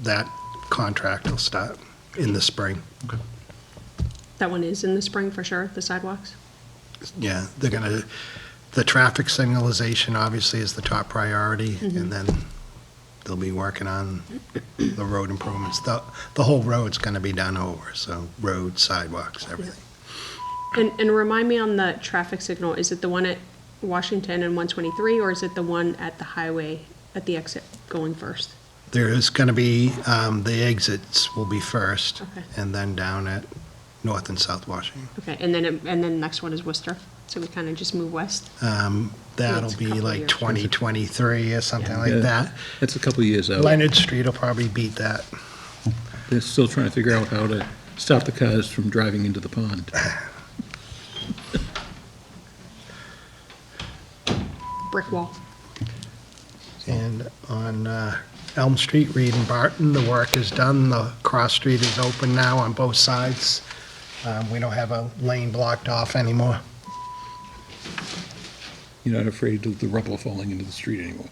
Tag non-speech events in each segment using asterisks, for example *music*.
that contract will start in the spring. That one is in the spring for sure, the sidewalks? Yeah, they're gonna, the traffic signalization obviously is the top priority, Mm-hmm. and then they'll be working on the road improvements. The, the whole road's gonna be done over, so road, sidewalks, everything. And, and remind me on the traffic signal, is it the one at Washington and 123, or is it the one at the highway, at the exit going first? There is gonna be, um, the exits will be first, Okay. and then down at North and South Washington. Okay, and then, it- and then next one is Worcester, so we kind of just move west? Um, it's that'll a be couple like years. 2023 or something like Yeah. Oh. that. That's a couple of years out. Leonard Street will probably beat that. They're still trying to figure out how to stop the cars from driving into the pond. Brick wall. And on uh, Elm Street, Reed and Barton, the work is done. The cross street is open now on both sides. Um, We don't have a lane blocked off anymore. You're not afraid of the rubble falling into the street anymore.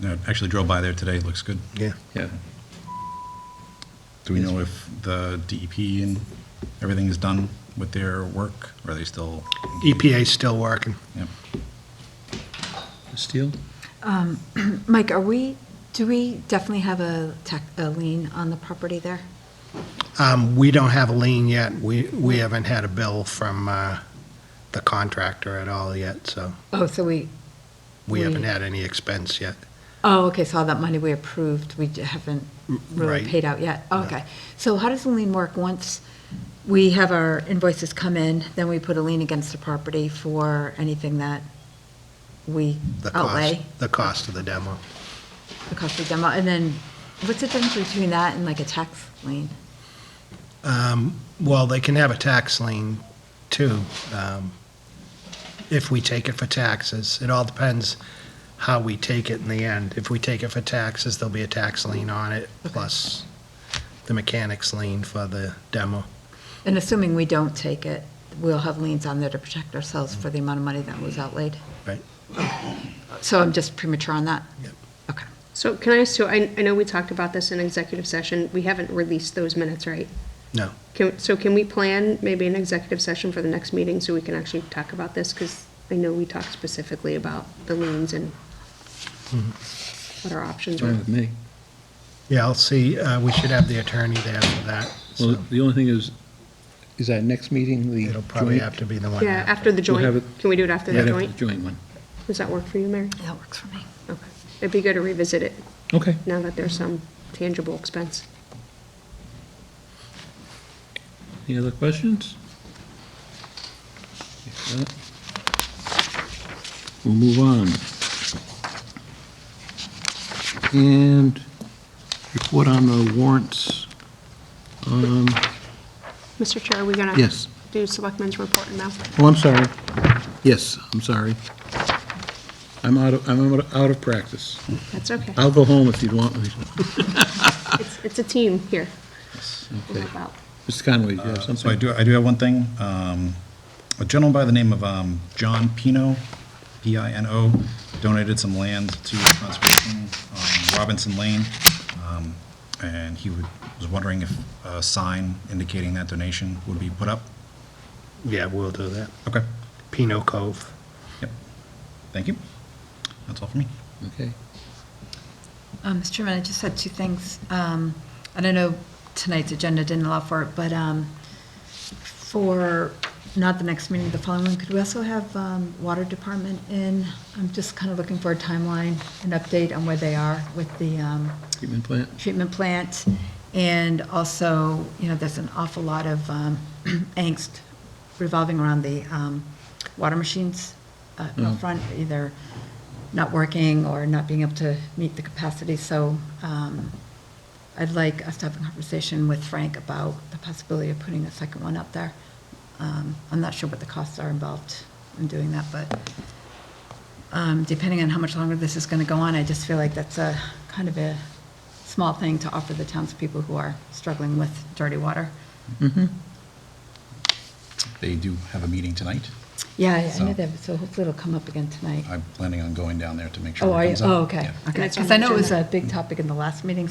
No, Actually drove by there today, It looks good. Yeah. Yeah. Do we know if the DEP and everything is done with their work? Or Are they still? EPA's still working. Yep. Steel? *clears throat* Mike, are we, do we definitely have a tax, a lien on the property there? Um, We don't have a lien yet. We, we haven't had a bill from uh, the contractor at all yet, so Oh, so we, we haven't We- had any expense yet. oh, okay, so all that money we approved, we haven't really right. paid out yet? Okay. So how does the lien work? Once we have our invoices come in, then we put a lien against the property for anything that we The cost, outlay? the cost of the demo. The cost of demo, and then what's the difference between that and like a tax lien? Um, Well, they can have a tax lien too, um, if we take it for taxes. It all depends how we take it in the end. If we take it for taxes, there'll be a tax lien on it, plus the mechanics lien for the demo. And assuming we don't take it, we'll have liens on there to protect ourselves for the amount of money that was outlaid? Right. So I'm just premature on that? Yep. Okay. So can I, ask- so I, I know we talked about this in executive session, we haven't released those minutes, right? No. Can, so can we plan maybe an executive session for the next meeting so we can actually talk about this? Because I know we talked specifically about the liens and Mm-hmm. what our options Fine were. with me. Yeah, I'll see, uh, we should have the attorney there for that, so Well, the only thing is, is our next meeting the it'll probably joint? have to be the one. Yeah, after the have joint. it- Can we do it after the Right after joint? Joint one. Does that work for you, Mary? That works for me. Okay. It'd be good to revisit it Okay. now that there's some tangible expense. Any other questions? If not, We'll move on. And report on the warrants. Um, Mr. Chair, are we gonna? Yes. Do selectmen's report now? Oh, I'm sorry. Yes, I'm sorry. I'm out of, I'm out of- out of practice. That's okay. I'll go home if you'd want me. It's, it's a team here. We'll Okay. help out. Mr. Conway, do you have Uh, So I something? do, I do have one thing. Um, A gentleman by the name of um, John Pino, P-I-N-O, donated some land to conservation on Robinson Lane. Um, And he would- was wondering if a sign indicating that donation would be put up. Yeah, we'll do that. Okay, Pino Cove. yep. Thank you. That's all for me. Okay. Um, Mr. Chairman, I just had two things. Um, and I know tonight's agenda didn't allow for it, but, um, for, not the next meeting, the following one, could we also have, um, Water Department in? I'm just kind of looking for a timeline, an update on where they are with the, um, Treatment plant? treatment plant. And also, you know, there's an awful lot of um, *clears throat* angst revolving around the um, water machines uh, up front, either not working or not being able to meet the capacity. So um, I'd like us to have a conversation with Frank about the possibility of putting a second one up there. Um, I'm not sure what the costs are involved in doing that, but um, depending on how much longer this is going to go on, I just feel like that's a kind of a small thing to offer the townspeople who are struggling with dirty water. They do have a meeting tonight. Yeah, I- I know So- that, so hopefully it'll come up again tonight. I'm planning on going down there to make sure Oh, it are you, comes up. oh, okay, Yeah. okay. it's on Because the I know it was a agenda. big topic in the last meeting, so